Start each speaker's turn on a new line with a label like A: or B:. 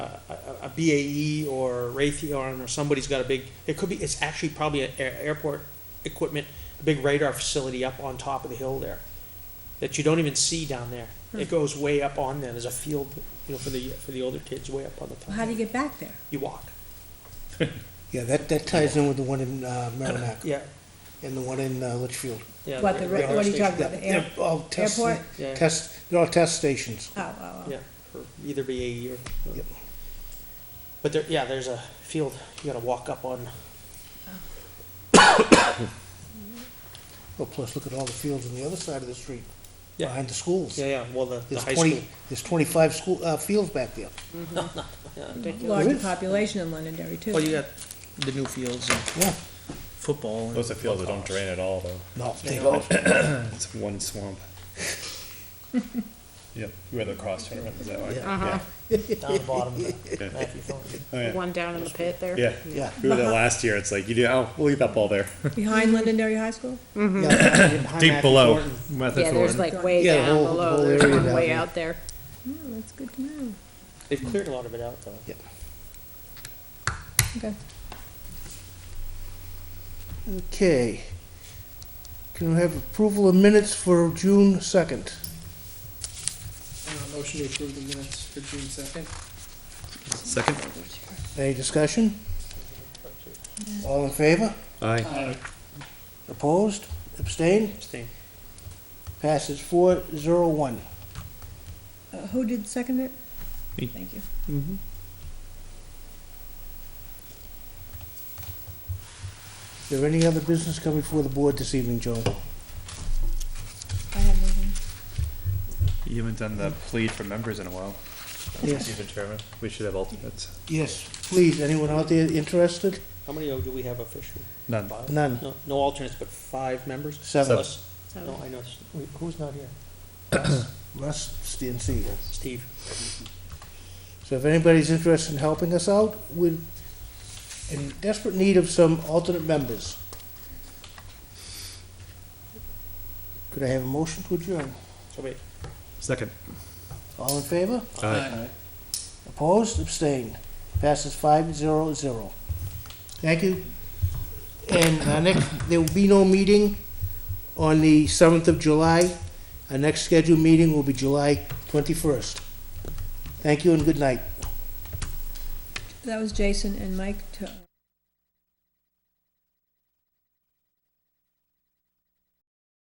A: BAE E or Raytheon or somebody's got a big, it could be, it's actually probably an air- airport equipment, a big radar facility up on top of the hill there that you don't even see down there.
B: Hmm.
A: It goes way up on there. There's a field, you know, for the, for the older kids way up on the top.
B: How do you get back there?
A: You walk.
C: Yeah, that, that ties in with the one in uh, Merrimack
A: Yeah,
C: and the one in uh, Litchfield.
A: yeah.
B: What, the,
A: radar
B: ra- what are you
A: station.
B: talking about, the air?
C: They're all test,
B: airport?
A: Yeah.
C: test, they're all test stations.
B: Oh, oh, oh.
A: Yeah, for either BAE or. or-
C: Yep.
A: But there, yeah, there's a field you gotta walk up on.
C: Well, plus, look at all the fields on the other side of the street,
A: Yeah.
C: behind the schools.
A: Yeah, yeah, well, the, the
C: There's
A: high school.
C: twenty, there's twenty-five school, uh, fields back there.
B: Larger
C: Really?
B: population in Londonderry too.
A: Well, Oh, you got the new fields and
C: Yeah,
A: football and.
D: Those are fields that don't drain at all, though.
C: no, they
A: Yeah.
C: don't.
D: It's one swamp. Yep, we had the cross tournament, is that right?
E: Uh-huh.
A: Down the bottom of the
D: Yeah.
A: Matthew Thornton.
D: Oh, yeah.
E: One down in the pit there.
D: Yeah,
C: Yeah.
D: we were there last year, it's like, you do, oh, we'll leave that ball there.
B: Behind Londonderry High School?
C: Yeah,
A: Behind
D: Deep
A: Matthew
D: below.
A: Thornton.
E: Yeah, there's like way
C: Yeah, the
E: down
C: whole- the
E: below,
C: whole
E: there's
C: area
E: one
C: down
E: way
C: there.
E: out there.
B: Yeah, Oh, that's good to know.
A: They've cleared a lot of it out though.
C: Yeah.
B: Okay.
C: Okay. Can we have approval of minutes for June second?
F: Uh, Motion to approve the minutes for June second.
D: Second?
C: Any discussion?
B: Uh,
C: All in favor?
D: Aye.
C: Opposed? Abstained?
A: Interesting.
C: Passes four zero one.
B: Uh, Who did second it?
D: Me.
B: Thank you.
C: Is there any other business coming before the board this evening, Joe?
B: I have nothing.
D: You haven't done the plead for members in a while.
C: Yes,
D: Even Chairman, we should have alternates.
C: yes, please, anyone out there interested?
A: How many oh, do we have officially?
D: None.
A: Five?
C: None.
A: No, no alternates, but five members?
C: Seven.
A: Plus- No, I know, s- wait, who's not here?
C: Russ, and Seager.
A: Steve.
C: So if anybody's interested in helping us out, we're in desperate need of some alternate members. Could I have a motion to adjourn?
A: So wait,
D: Second.
C: All in favor?
D: Aye.
C: Opposed? Abstained? Passes five zero zero. Thank you. And our next, there will be no meeting on the seventh of July. Our next scheduled meeting will be July twenty-first. Thank you and good night.
B: That was Jason and Mike to.